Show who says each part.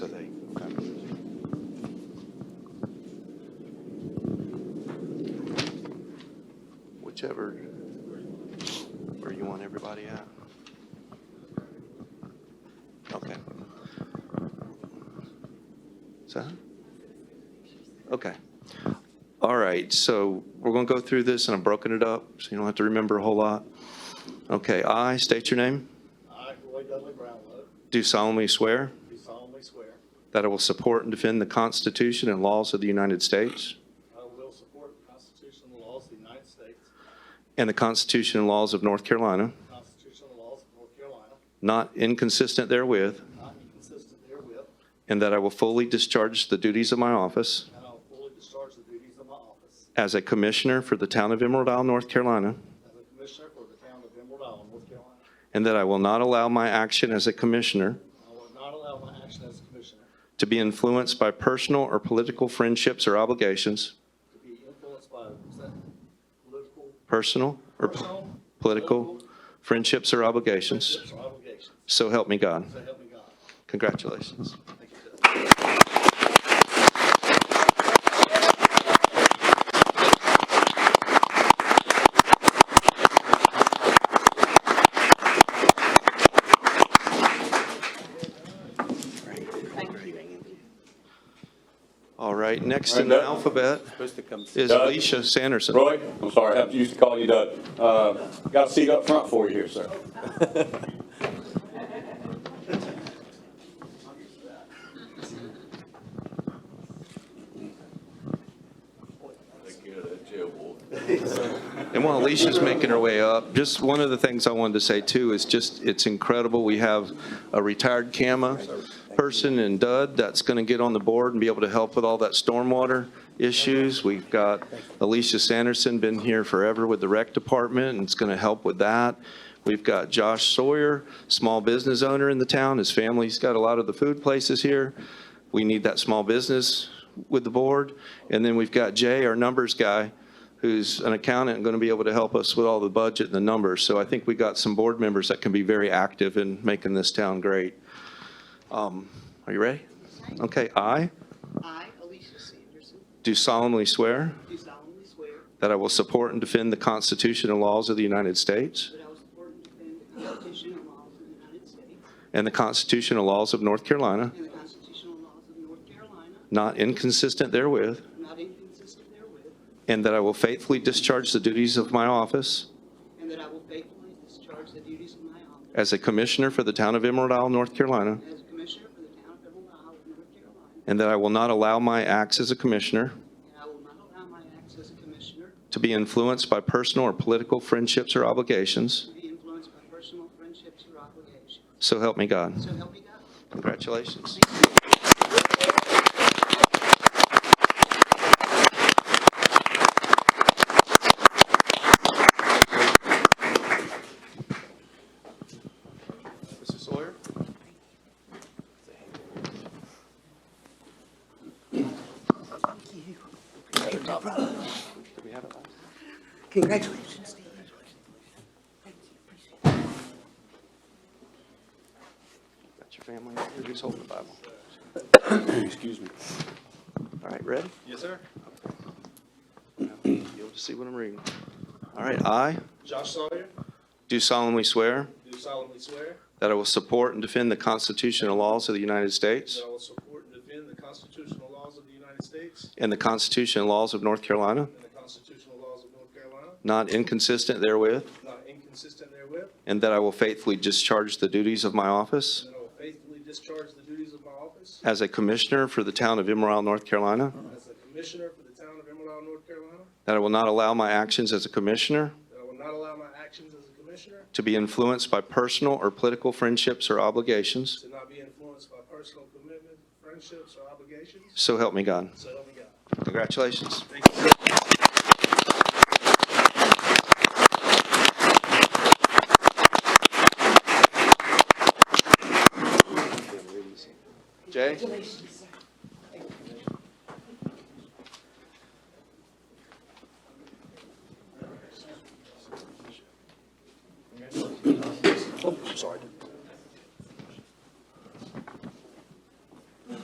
Speaker 1: whichever, where you want everybody at. Okay. So, okay. All right, so we're going to go through this, and I've broken it up, so you don't have to remember a whole lot. Okay, I state your name,
Speaker 2: I, Roy Dudley Brownlow,
Speaker 1: do solemnly swear
Speaker 2: do solemnly swear
Speaker 1: that I will support and defend the Constitution and laws of the United States
Speaker 2: I will support the Constitution and laws of the United States,
Speaker 1: and the Constitution and laws of North Carolina,
Speaker 2: the Constitution and laws of North Carolina,
Speaker 1: not inconsistent therewith,
Speaker 2: not inconsistent therewith,
Speaker 1: and that I will fully discharge the duties of my office
Speaker 2: and I will fully discharge the duties of my office
Speaker 1: as a commissioner for the town of Emerald Isle, North Carolina,
Speaker 2: as a Commissioner for the town of Emerald Isle, North Carolina.
Speaker 1: and that I will not allow my action as a commissioner
Speaker 2: I will not allow my action as a Commissioner
Speaker 1: to be influenced by personal or political friendships or obligations,
Speaker 2: to be influenced by political,
Speaker 1: personal or p-
Speaker 2: personal,
Speaker 1: political friendships or obligations.
Speaker 2: friendships, or obligations.
Speaker 1: So help me God.
Speaker 2: So help me God.
Speaker 1: Congratulations.
Speaker 2: Thank you, Judge.
Speaker 1: All right, next in the alphabet is
Speaker 3: Doug?
Speaker 1: Alicia Sanderson.
Speaker 3: Roy, I'm sorry, I have to used to call you Doug. Uh, Got a seat up front for you here, sir.
Speaker 1: And while Alicia's making her way up, just one of the things I wanted to say too is just, it's incredible. We have a retired CAMA person in Dud that's going to get on the board and be able to help with all that stormwater issues. We've got Alicia Sanderson, been here forever with the rec department and is going to help with that. We've got Josh Sawyer, small business owner in the town. His family's got a lot of the food places here. We need that small business with the board. And then we've got Jay, our numbers guy, who's an accountant and going to be able to help us with all the budget and the numbers. So I think we got some board members that can be very active in making this town great. Um, Are you ready? Okay, I
Speaker 4: I, Alicia Sanderson,
Speaker 1: do solemnly swear
Speaker 4: do solemnly swear
Speaker 1: that I will support and defend the Constitution and laws of the United States
Speaker 4: that I will support and defend the Constitution and laws of the United States
Speaker 1: and the Constitution and laws of North Carolina,
Speaker 4: and the constitutional laws of North Carolina,
Speaker 1: not inconsistent therewith,
Speaker 4: not inconsistent therewith,
Speaker 1: and that I will faithfully discharge the duties of my office
Speaker 4: and that I will faithfully discharge the duties of my office
Speaker 1: as a commissioner for the town of Emerald Isle, North Carolina,
Speaker 4: as Commissioner for the town of Emerald Isle, North Carolina,
Speaker 1: and that I will not allow my acts as a commissioner
Speaker 4: and I will not allow my acts as a commissioner
Speaker 1: to be influenced by personal or political friendships or obligations.
Speaker 4: to be influenced by personal friendships or obligations.
Speaker 1: So help me God.
Speaker 4: So help me God.
Speaker 1: Congratulations. Mrs. Sawyer? Do we have a-
Speaker 5: Congratulations.
Speaker 1: Got your family, up here? who's holding the Bible?
Speaker 3: Excuse me.
Speaker 1: All right, ready?
Speaker 2: Yes, sir.
Speaker 1: You'll see what I'm reading. All right, I
Speaker 2: Josh Sawyer,
Speaker 1: do solemnly swear
Speaker 2: do solemnly swear
Speaker 1: that I will support and defend the Constitution and laws of the United States
Speaker 2: that I will support and defend the constitutional laws of the United States
Speaker 1: and the Constitution and laws of North Carolina,
Speaker 2: and the constitutional laws of North Carolina,
Speaker 1: not inconsistent therewith,
Speaker 2: not inconsistent therewith,
Speaker 1: and that I will faithfully discharge the duties of my office
Speaker 2: and that I will faithfully discharge the duties of my office
Speaker 1: as a commissioner for the town of Emerald, Isle, North Carolina,
Speaker 2: as a commissioner for the town of Emerald Isle, North Carolina,
Speaker 1: that I will not allow my actions as a commissioner
Speaker 2: that I will not allow my actions as a commissioner
Speaker 1: to be influenced by personal or political friendships or obligations.
Speaker 2: to not be influenced by personal commitment, friendships, or obligations,
Speaker 1: So help me God.
Speaker 2: so help me God.
Speaker 1: Congratulations. Jay?
Speaker 5: Congratulations.